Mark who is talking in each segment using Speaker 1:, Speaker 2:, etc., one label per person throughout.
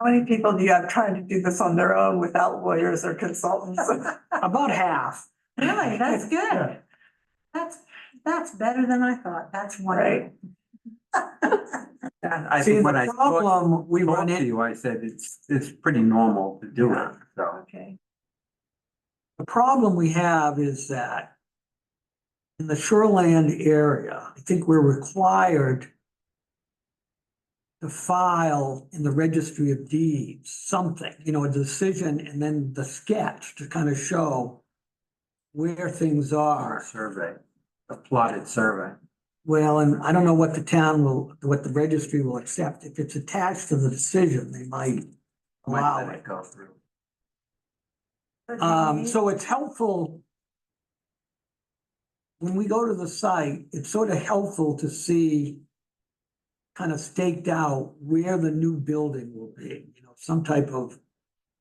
Speaker 1: How many people do you have trying to do this on their own without lawyers or consultants?
Speaker 2: About half.
Speaker 3: Really, that's
Speaker 2: Yeah.
Speaker 3: good. That's, that's better than I thought. That's
Speaker 1: Right.
Speaker 3: wonderful.
Speaker 4: I
Speaker 2: See,
Speaker 4: think when I
Speaker 2: the
Speaker 4: spoke
Speaker 2: problem we run
Speaker 4: spoke to
Speaker 2: into,
Speaker 4: you, I said it's, it's pretty normal to do it, so.
Speaker 1: Okay.
Speaker 2: the problem we have is that in the shoreland area, I think we're required to file in the registry of deeds, something, you know, a decision and then the sketch to kind of show where things
Speaker 4: Our
Speaker 2: are.
Speaker 4: survey, a plotted survey.
Speaker 2: Well, and I don't know what the town will, what the registry will accept. If it's attached to the decision, they might
Speaker 4: Might
Speaker 2: allow
Speaker 4: let
Speaker 2: it.
Speaker 4: it go through.
Speaker 2: Um, so it's helpful. When we go to the site, it's sort of helpful to see kind of staked out where the new building will be, you know, some type of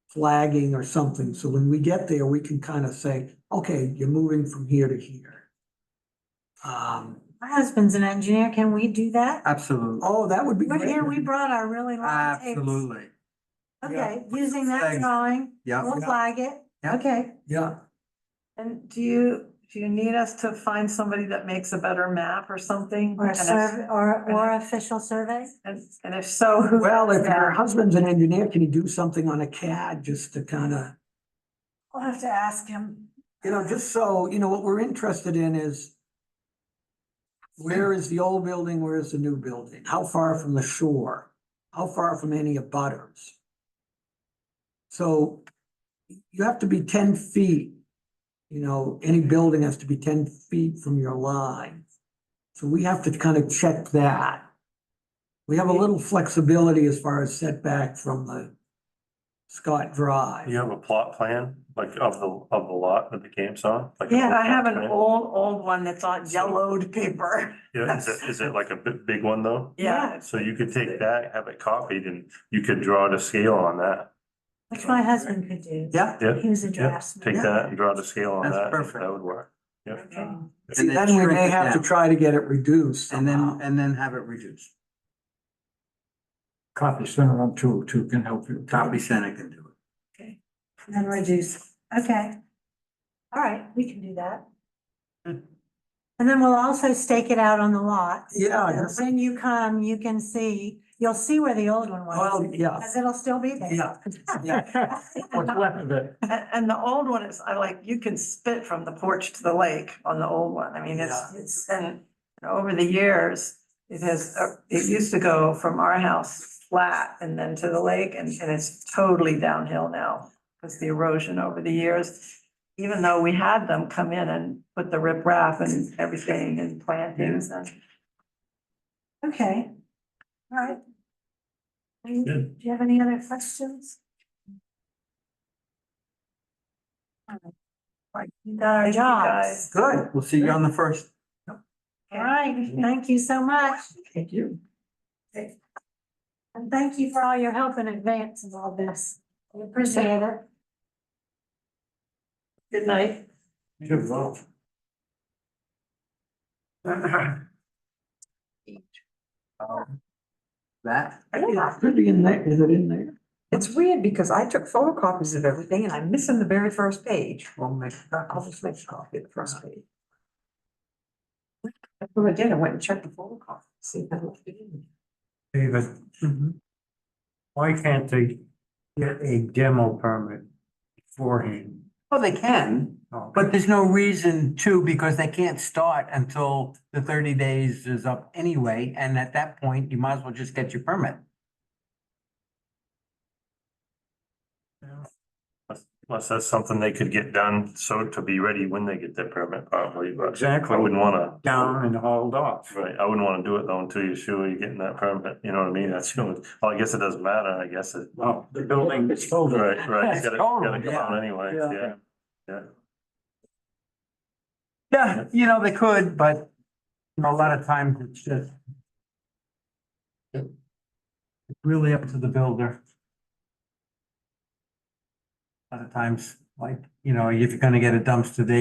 Speaker 2: flagging or something. So when we get there, we can kind of say, okay, you're moving from here to here. Um,
Speaker 3: My husband's an engineer. Can we do that?
Speaker 4: Absolutely,
Speaker 2: oh, that would be
Speaker 3: We're
Speaker 2: great.
Speaker 3: here, we brought our really long tapes.
Speaker 4: absolutely,
Speaker 3: Okay, using that
Speaker 4: Thanks.
Speaker 3: drawing,
Speaker 4: yeah.
Speaker 3: we'll flag it.
Speaker 4: Yeah.
Speaker 3: Okay.
Speaker 2: Yeah,
Speaker 1: And do you, do you need us to find somebody that makes a better map or something?
Speaker 3: Or a
Speaker 1: And if-
Speaker 3: survey, or, or official survey?
Speaker 1: And, and if so, who?
Speaker 2: well, if your
Speaker 1: Yeah.
Speaker 2: husband's an engineer, can you do something on a CAD just to kind of?
Speaker 3: We'll have to ask him.
Speaker 2: You know, just so, you know, what we're interested in is where is the old building, where is the new building? How far from the shore? How far from any abutters? So you have to be ten feet, you know, any building has to be ten feet from your line. So we have to kind of check that. We have a little flexibility as far as setback from the Scott Drive.
Speaker 5: You have a plot plan, like of the, of the lot that the game's on? Like an
Speaker 1: Yeah,
Speaker 5: old
Speaker 1: I have
Speaker 5: plot
Speaker 1: an
Speaker 5: plan?
Speaker 1: old, old one that's on yellowed paper.
Speaker 5: Yeah, is it, is it like a big, big one though?
Speaker 1: Yeah.
Speaker 5: So you could take that, have it copied and you could draw to scale on that.
Speaker 3: Which my husband could do.
Speaker 2: Yeah.
Speaker 5: Yeah,
Speaker 3: He was a
Speaker 5: yeah.
Speaker 3: draftsman.
Speaker 5: Take that and draw to scale on
Speaker 4: That's
Speaker 5: that.
Speaker 4: perfect.
Speaker 5: That would work. Yeah.
Speaker 3: Okay.
Speaker 2: See,
Speaker 4: And
Speaker 2: then we
Speaker 4: shrink
Speaker 2: may
Speaker 4: it
Speaker 2: have to
Speaker 4: down.
Speaker 2: try to get it reduced
Speaker 4: And
Speaker 2: somehow.
Speaker 4: then, and then have it reduced.
Speaker 6: copy center on two, two can help you.
Speaker 4: Copy Center can do it.
Speaker 3: And then reduce, okay. All right, we can do that. And then we'll also stake it out on the lot.
Speaker 2: Yeah, I guess-
Speaker 3: When you come, you can see, you'll see where the old one
Speaker 2: well,
Speaker 3: was,
Speaker 2: Oh, yeah,
Speaker 3: because it'll still be there.
Speaker 2: yeah, yeah.
Speaker 6: What's left of it?
Speaker 1: And, and the old one is, I like, you can spit from the porch to the lake on the old one. I mean, it's, it's, and over the years, it has, uh, it used to go from our house flat and then to the lake and, and it's totally downhill now because the erosion over the years. Even though we had them come in and put the riprap and everything and plantings and.
Speaker 3: Okay, all right. Any-
Speaker 5: Good.
Speaker 3: Do you have any other questions? All right, We got our
Speaker 1: Thank you, guys.
Speaker 3: jobs.
Speaker 4: Good, we'll see you on the first.
Speaker 3: All right, thank you so much.
Speaker 2: Thank you.
Speaker 3: And thank you for all your help in advance of all this. We appreciate it.
Speaker 1: Good night.
Speaker 6: You're wrong.
Speaker 4: Um, That,
Speaker 2: Yeah, could be in there, is it in there?
Speaker 7: It's weird because I took photocopies of everything and I'm missing the very first page.
Speaker 4: we'll make.
Speaker 7: I'll just make a copy of the first page. That's what I did. I went and checked the photocopy, see if I left it in.
Speaker 6: David, why can't they get a demo permit beforehand?
Speaker 4: Well, they can,
Speaker 6: Oh,
Speaker 4: but there's no reason to, because they can't start until the thirty days is up anyway, and at that point, you might as well just get your permit.
Speaker 5: Unless that's something they could get done, so to be ready when they get their permit probably, but
Speaker 6: Exactly.
Speaker 5: I wouldn't wanna.
Speaker 6: Down and hauled off.
Speaker 5: Right, I wouldn't wanna do it though until you're sure you're getting that permit, you know what I mean? That's, the only- well, I guess it doesn't matter, I guess it.
Speaker 6: Well, the building is sold.
Speaker 5: Right, right, you
Speaker 4: It's
Speaker 5: gotta, gotta
Speaker 4: total,
Speaker 5: come
Speaker 4: yeah.
Speaker 5: out anyway,
Speaker 2: Yeah.
Speaker 5: yeah, yeah.
Speaker 4: Yeah, you know, they could, but you know, a lot of times it's just. It's really up to the builder. A lot of times, like, you know, if you're gonna get a dumpster, they